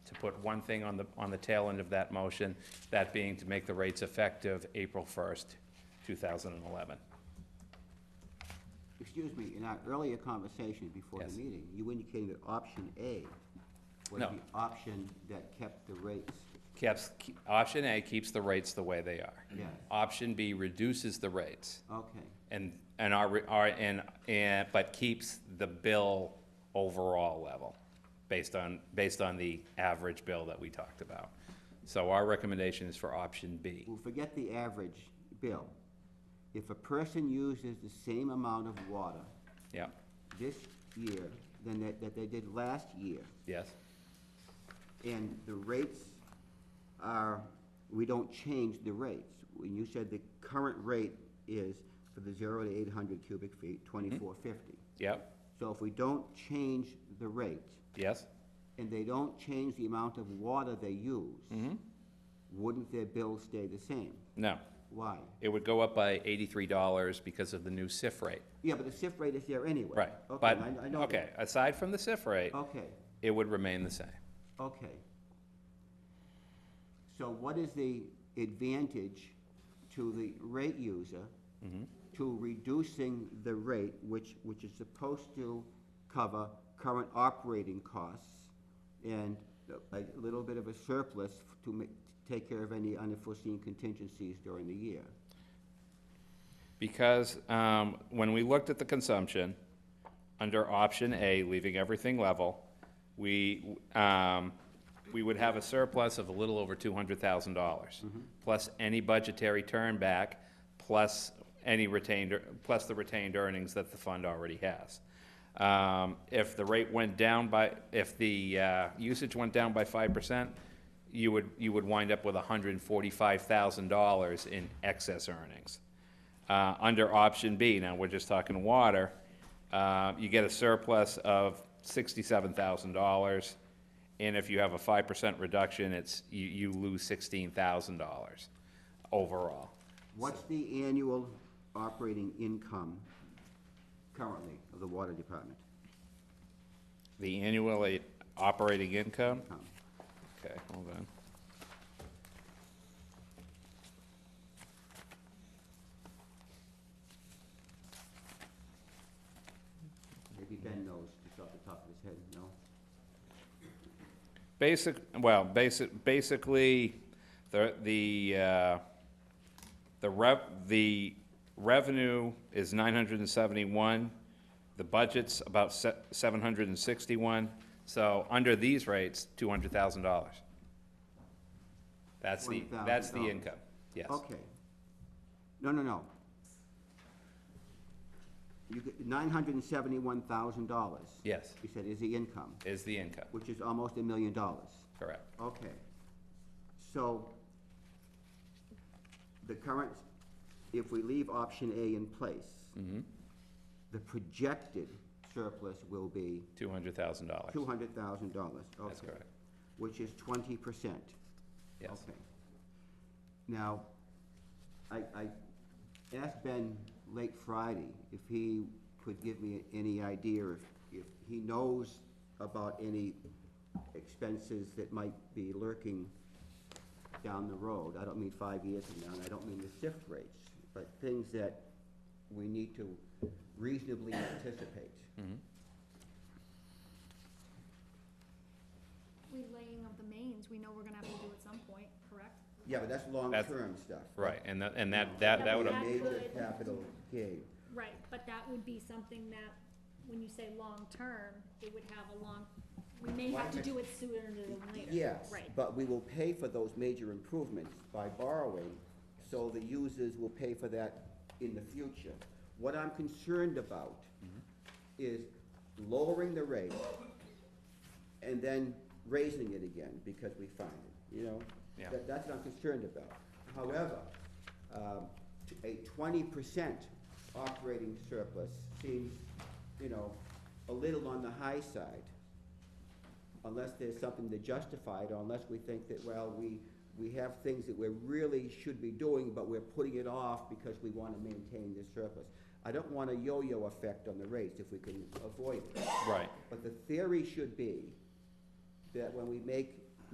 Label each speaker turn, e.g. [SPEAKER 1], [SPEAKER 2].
[SPEAKER 1] to put one thing on the, on the tail end of that motion, that being to make the rates effective April 1st, 2011.
[SPEAKER 2] Excuse me, in our earlier conversation before
[SPEAKER 1] Yes.
[SPEAKER 2] the meeting, you indicated that option A was
[SPEAKER 1] No.
[SPEAKER 2] the option that kept the rates.
[SPEAKER 1] Keeps, ke- option A keeps the rates the way they are.
[SPEAKER 2] Yes.
[SPEAKER 1] Option B reduces the rates
[SPEAKER 2] Okay,
[SPEAKER 1] and, and our, re- our, and, and, but keeps the bill overall level based on, based on the average bill that we talked about. So our recommendation is for option B.
[SPEAKER 2] well, forget the average bill. If a person uses the same amount of water
[SPEAKER 1] Yeah,
[SPEAKER 2] this year than that, that they did last year,
[SPEAKER 1] yes,
[SPEAKER 2] and the rates are, we don't change the rates. When you said the current rate is for the zero to eight hundred cubic
[SPEAKER 1] Mm-hmm.
[SPEAKER 2] feet, twenty-four fifty.
[SPEAKER 1] yep,
[SPEAKER 2] So if we don't change the rate,
[SPEAKER 1] yes,
[SPEAKER 2] and they don't change the amount of water they use,
[SPEAKER 1] Mm-hmm.
[SPEAKER 2] wouldn't their bill stay the same?
[SPEAKER 1] no.
[SPEAKER 2] Why?
[SPEAKER 1] It would go up by eighty-three dollars because of the new SIF rate.
[SPEAKER 2] Yeah, but the SIF rate is there anyway.
[SPEAKER 1] Right,
[SPEAKER 2] Okay,
[SPEAKER 1] but,
[SPEAKER 2] I- I know Oh.
[SPEAKER 1] okay,
[SPEAKER 2] that.
[SPEAKER 1] aside from the SIF rate,
[SPEAKER 2] Okay,
[SPEAKER 1] it would remain the same.
[SPEAKER 2] okay. So what is the advantage to the rate user to reducing the rate, which, which is supposed to cover current operating costs and a little bit of a surplus to ma- take care of any unforeseen contingencies during the year?
[SPEAKER 1] Because um, when we looked at the consumption, under option A, leaving everything level, we, um, we would have a surplus of a little over two hundred thousand dollars, plus any budgetary turnback, plus any retained, ear- plus the retained earnings that the fund already has. Um, If the rate went down by, if the uh, usage went down by five percent, you would, you would wind up with hundred and forty-five thousand dollars in excess earnings. Uh, Under option B, now we're just talking water, uh, you get a surplus of sixty-seven thousand dollars. And if you have a five percent reduction, it's, you, you lose sixteen thousand dollars overall.
[SPEAKER 2] What's the annual operating income currently of the water department?
[SPEAKER 1] The annual eh, operating income,
[SPEAKER 2] Tom?
[SPEAKER 1] okay, hold on.
[SPEAKER 2] Maybe Ben knows just off the top of his head, no?
[SPEAKER 1] Basic, well, basic, basically, the, the, uh, the rev, the revenue is nine hundred and seventy-one, the budget's about se- seven hundred and sixty-one, so under these rates, two hundred thousand dollars. That's the, that's the
[SPEAKER 2] $200,000.
[SPEAKER 1] income, yes.
[SPEAKER 2] Okay. No, no, no. You, nine hundred and seventy-one thousand dollars.
[SPEAKER 1] Yes,
[SPEAKER 2] You said is the income,
[SPEAKER 1] is the income,
[SPEAKER 2] which is almost a million dollars.
[SPEAKER 1] correct.
[SPEAKER 2] Okay. So the current, if we leave option A in place,
[SPEAKER 1] Mm-hmm.
[SPEAKER 2] the projected surplus will be
[SPEAKER 1] Two hundred thousand dollars,
[SPEAKER 2] two hundred thousand dollars.
[SPEAKER 1] That's correct.
[SPEAKER 2] Which is twenty percent.
[SPEAKER 1] yes.
[SPEAKER 2] Okay. Now, I, I asked Ben late Friday if he could give me any idea if, if he knows about any expenses that might be lurking down the road. I don't mean five years from now, and I don't mean the shift rates, but things that we need to reasonably anticipate.
[SPEAKER 1] Hmm.
[SPEAKER 3] relaying of the mains, we know we're gonna have to do at some point, correct?
[SPEAKER 2] Yeah, but that's long-term stuff.
[SPEAKER 1] Right, and that, and that, that, that
[SPEAKER 3] That
[SPEAKER 1] would,
[SPEAKER 3] would
[SPEAKER 2] A Major
[SPEAKER 3] That would-
[SPEAKER 2] capital gain.
[SPEAKER 3] Right, but that would be something that, when you say long-term, it would have a long, we may have to do it sooner than later.
[SPEAKER 2] Yes,
[SPEAKER 3] Right,
[SPEAKER 2] but we will pay for those major improvements by borrowing, so the users will pay for that in the future. What I'm concerned about is lowering the rate and then raising it again because we find it, you know?
[SPEAKER 1] Yeah.
[SPEAKER 2] That- That's what I'm concerned about. However, um, t- a twenty percent operating surplus seems, you know, a little on the high side unless there's something to justify it, or unless we think that, well, we, we have things that we really should be doing, but we're putting it off because we wanna maintain this surplus. I don't want a yo-yo effect on the rates if we can avoid it.
[SPEAKER 1] right,
[SPEAKER 2] But the theory should be that when we make